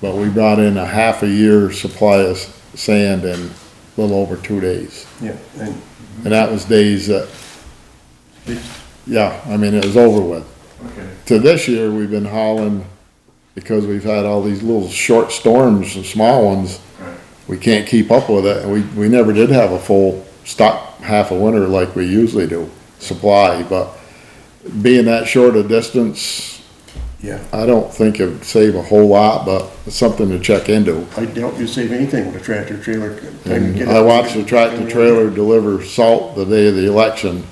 But we brought in a half a year's supply of s- sand in a little over two days. Yeah, and And that was days that, yeah, I mean, it was over with. okay, To this year, we've been hauling, because we've had all these little short storms and small ones, right, we can't keep up with it. We, we never did have a full stock half a winter like we usually do, supply, but being that short a distance, yeah. I don't think it'd save a whole lot, but it's something to check into. I doubt you save anything with a tractor trailer. time to get Mm-hmm. I out. watched the tractor trailer deliver salt the day of the election,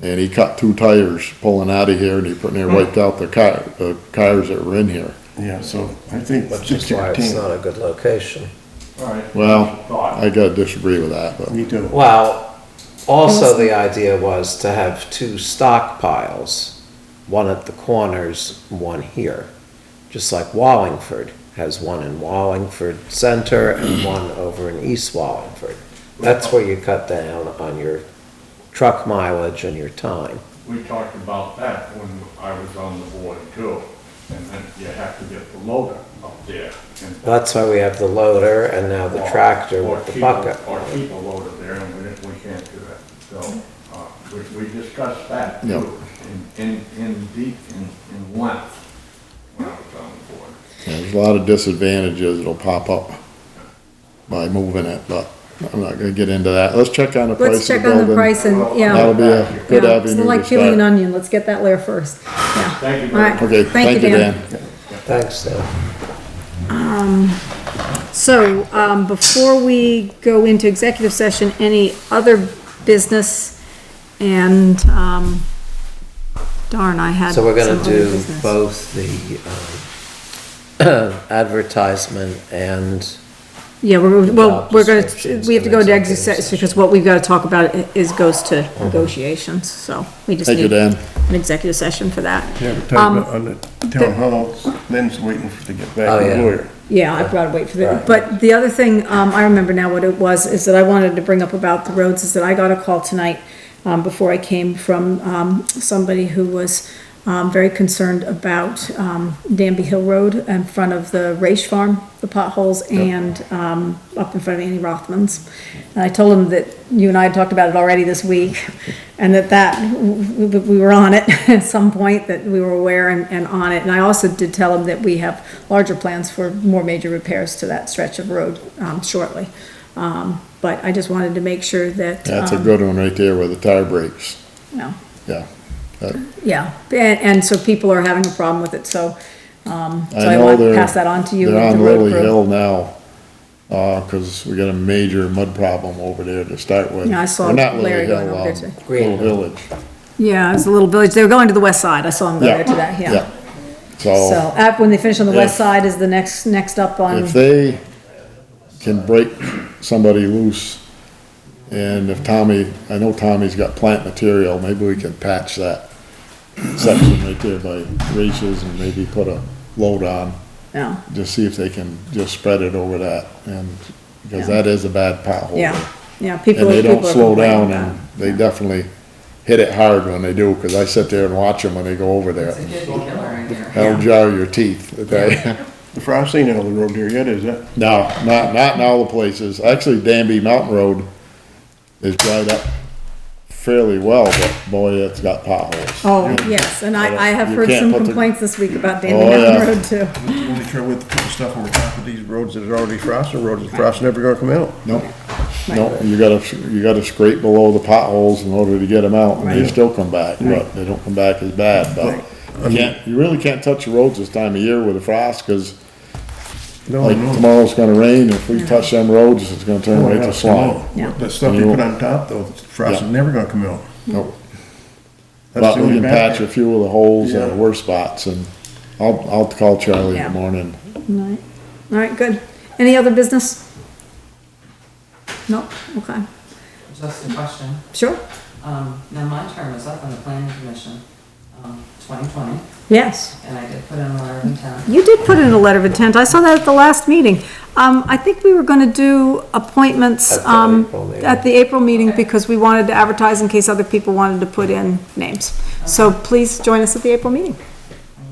and he cut two tires pulling out of here, and he put near wiped out the car, the cars that were in here. Yeah, so I think Which six is why it's fifteen, not a good location. Alright. Well, Thought. I gotta disagree with that, but, me too. Well, also the idea was to have two stockpiles, one at the corners, one here. Just like Wallingford has one in Wallingford Center and one over in East Wallingford. That's where you cut down on your truck mileage and your time. We talked about that when I was on the board too, and then you have to get the loader up there. and- That's why we have the loader and now the tractor Or with the keep a- bucket. Or keep a loader there, and we, didn't- we can't do that, so, uh, we, we discussed that Yeah. too, in, in, in deep, in, in length, when I was on the board. yeah, there's a lot of disadvantages that'll pop up by moving it, but I'm not gonna get into that. Let's check on the price Let's of the check on the building. price and, That'll yeah. be a good Yeah, It's avenue like to peeling an start. onion, let's get that layer first. Yeah. Thank you All very much. right. Okay, thank you, Dan. Thanks, Dan. So, um, before we go into executive session, any other business? And, um, darn, I had So we're some gonna other do business. both the um, advertisement and Yeah, we're, well, Job we're gonna, descriptions we have to and go to executive exercise, session. because what we've gotta talk about i- is, goes to negotiations, so we just Thank you, need Dan. an executive session for that. Yeah, but Um, time on the town hall, Lynn's waiting for to get Oh, back to the yeah. lawyer. Yeah, I've got to wait for that. Right. But the other thing, um, I remember now what it was, is that I wanted to bring up about the roads, is that I got a call tonight, um, before I came from, um, somebody who was, um, very concerned about, um, Danby Hill Road in front of the Raish Farm, the potholes, and, um, up in front of Annie Rothman's. And I told him that you and I had talked about it already this week, and that that, we, we were on it at some point, that we were aware and, and on it. And I also did tell him that we have larger plans for more major repairs to that stretch of road, um, shortly. Um, but I just wanted to make sure that, That's a um, good one right there with the tire brakes, you know, yeah. That- yeah, and, and so people are having a problem with it, so, um, so I I know want to they're. pass that on to you. They're with on the road Lily crew. Hill now, uh, 'cause we got a major mud problem over there to start with. Yeah, I saw Or not Lily Larry going Hill, over there um, today. Green. Little Village. Yeah, it's a little village, they were going to the west side, I saw them go there today, yeah. So, um, So app, when they finish on the west Oh. If- side is the next, next up on, if they can break somebody loose and if Tommy, I know Tommy's got plant material, maybe we can patch that section right there by races and maybe put a load on. yeah, just see if they can just spread it over that, and, because Yeah. that is a bad pothole. yeah, yeah, Oh, And people. they don't people are slow complaining down, about and they definitely hit it hard when they do, because I sit there and watch them when they go over there. That'll jar your teeth, okay? The frost ain't on the road there yet, is it? No, not, not in all the places. Actually, Danby Mountain Road is dried up fairly well, but boy, it's got potholes. Oh, yes, and I, I have You heard can't some put the- complaints this week about Oh, Danby Mountain yeah. Road too. The only trouble with putting stuff over top of these roads that are already frosted roads, the frost never gonna come out. Nope, nope, you gotta, you gotta scrape below the potholes in order to get them out, and they Right. still come back, but they don't come back as bad, but you can't, you really can't touch the roads this time of year with a frost, cause No, like Oh, no. tomorrow's gonna rain, if we touch them roads, it's gonna turn Oh, right yeah, to come slime. out. Yeah. The stuff you put on top though, the frost is Yeah. never gonna come out. Nope. That's But we the only can bad patch a part. few of the holes in the Yeah. worst spots, and I'll, I'll call Charlie in Yeah. the morning. Alright, alright, good. Any other business? No, okay, Just a question. sure, Um, now my term is up on the planning commission, um, twenty twenty, yes. and I did put in a letter of intent. You did put in a letter of intent, I saw that at the last meeting. Um, I think we were gonna do appointments, At the um, April meeting. at the April meeting because we wanted to advertise in case other people wanted to put in names. So please join us at the April meeting.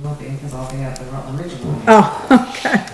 I'm looking, because I'll be at the Rutland Regional. Oh, okay.